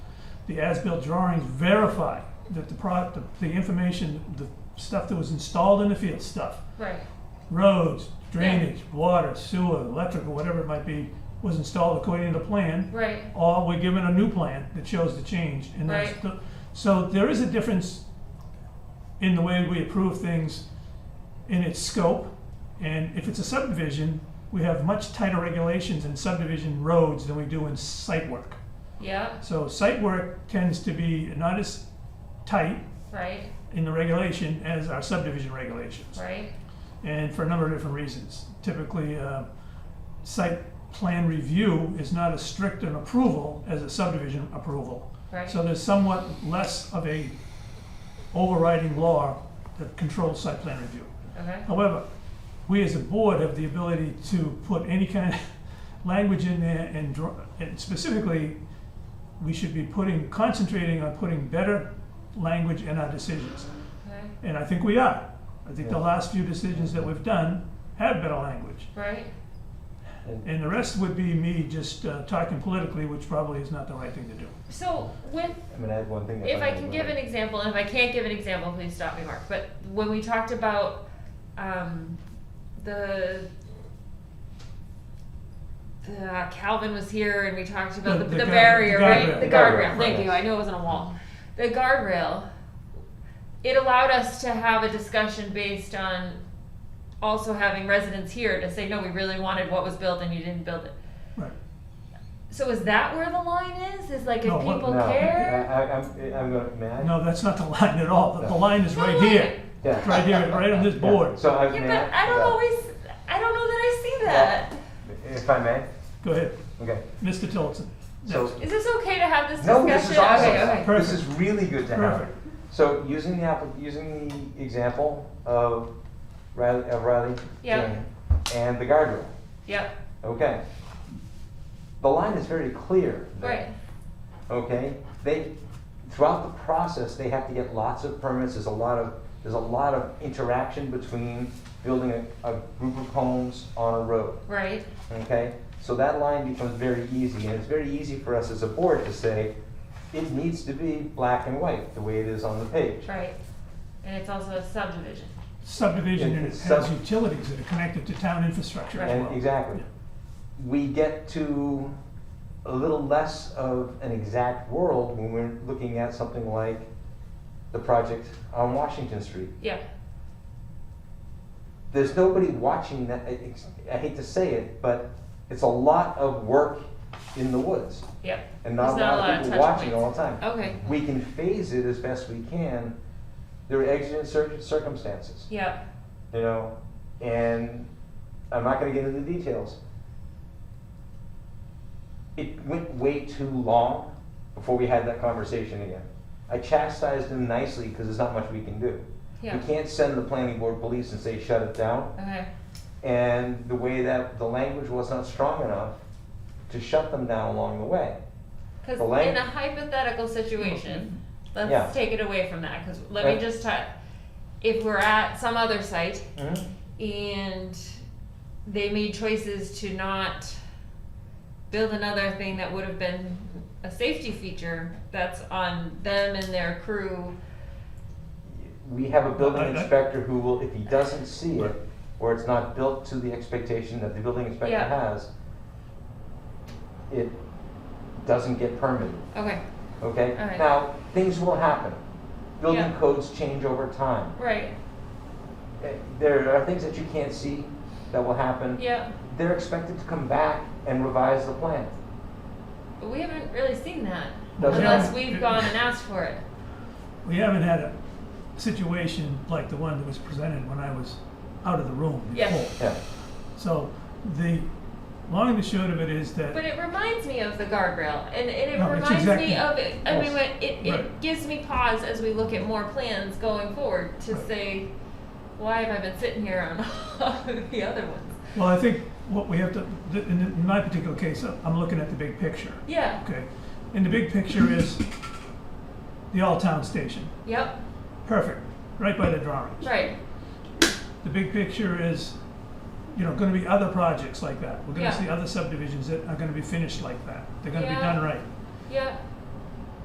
the as-built drawings verify that the pro, the, the information, the stuff that was installed in the field, stuff, Right, roads, drainage, water, sewer, electrical, whatever it might be, was installed according to the plan, right, or we're given a new plan that shows the change. and that's Right. the- So there is a difference in the way we approve things in its scope. And if it's a subdivision, we have much tighter regulations in subdivision roads than we do in site work. yeah, So site work tends to be not as tight right, in the regulation as our subdivision regulations right, and for a number of different reasons. Typically, uh, site plan review is not as strict an approval as a subdivision approval. right, So there's somewhat less of a overriding law that controls site plan review. okay, However, we as a board have the ability to put any kind of language in there and draw, and specifically, we should be putting, concentrating on putting better language in our decisions. okay, And I think we are. I think the last few decisions that we've done have better language. right, And the rest would be me just uh, talking politically, which probably is not the right thing to do. so with, I'm gonna add one thing. if I can give an example, and if I can't give an example, please stop me, Mark, but when we talked about, um, the the uh, Calvin was here and we talked about The- the, the the, guard- barrier, the right? guardrail. The Guardrail, guardrail, thank right. you, I knew it wasn't a wall. The guardrail, it allowed us to have a discussion based on also having residents here to say, no, we really wanted what was built and you didn't build it. Right. So is that where the line is? Is like if No, what- people No, care? I, I, I'm, I'm gonna, may I? No, that's not the line at all. The the line is No, right like- here, Yeah. right here, right on this Yeah. board. So I, Yeah, may but I don't yeah. always, I don't know that I see that. If I may, Go ahead, okay, Mr. Tillotson. so. Next. Is this okay to have this discussion? No, this is awesome. Okay, okay. Per- This is really good to have. Perfect. So using the, app- using the example of Riley, of Riley Yeah. Jane and the guardrail, Yep, okay? The line is very clear. there, right, Okay, they, throughout the process, they have to get lots of permits, there's a lot of, there's a lot of interaction between building a, a group of homes on a road. right, Okay, so that line becomes very easy, and it's very easy for us as a board to say, it needs to be black and white, the way it is on the page. right. And it's also a subdivision. Subdivision Yeah, and it it's has sub- utilities that are connected to town infrastructure as And well. exactly, we get to a little less of an exact world when we're looking at something like the project on Washington Street. Yeah, There's nobody watching that, I- it's- I hate to say it, but it's a lot of work in the woods, yep. and not a There's not lot of people touch watching points. all the time. Okay, we can phase it as best we can. There are exigent cir- circumstances, yep, you know, and I'm not going to get into the details. It went way too long before we had that conversation again. I chastised him nicely because there's not much we can do. yeah, We can't send the planning board police and say shut it down. okay, And the way that the language was not strong enough to shut them down along the way. cause The lang- in a hypothetical situation, Yeah. let's take it away from that, cause let me Right. just talk. If we're at some other site and they made choices to not build another thing that would have been a safety feature that's on them and their crew We have a building I- I- inspector who will, if he doesn't see it, or it's not built to the expectation that the building inspector Yeah. has, it doesn't get permitted, okay okay? All right. Now, things will happen. Building Yeah. codes change over time. right Eh, There are things that you can't see that will happen. yeah They're expected to come back and revise the plan. but we haven't really seen that Doesn't- unless we've gone and asked for it We haven't had a situation like the one that was presented when I was out of the room Yeah. before. Yeah, So the long and the short of it is that but it reminds me of the guardrail and, and it No, it's reminds exactly- me of it i mean when it, it Right. gives me pause as we look at more plans going forward to Right. say why have i been sitting here on all of the other ones Well, I think what we have to, th- in in my particular case, uh, I'm looking at the big picture, yeah okay? And the big picture is the all-town station, yep perfect, right by the drawings. right The big picture is, you know, gonna be other projects like that. We're gonna Yeah. see other subdivisions that are gonna be finished like that. They're gonna be Yeah. done right. yeah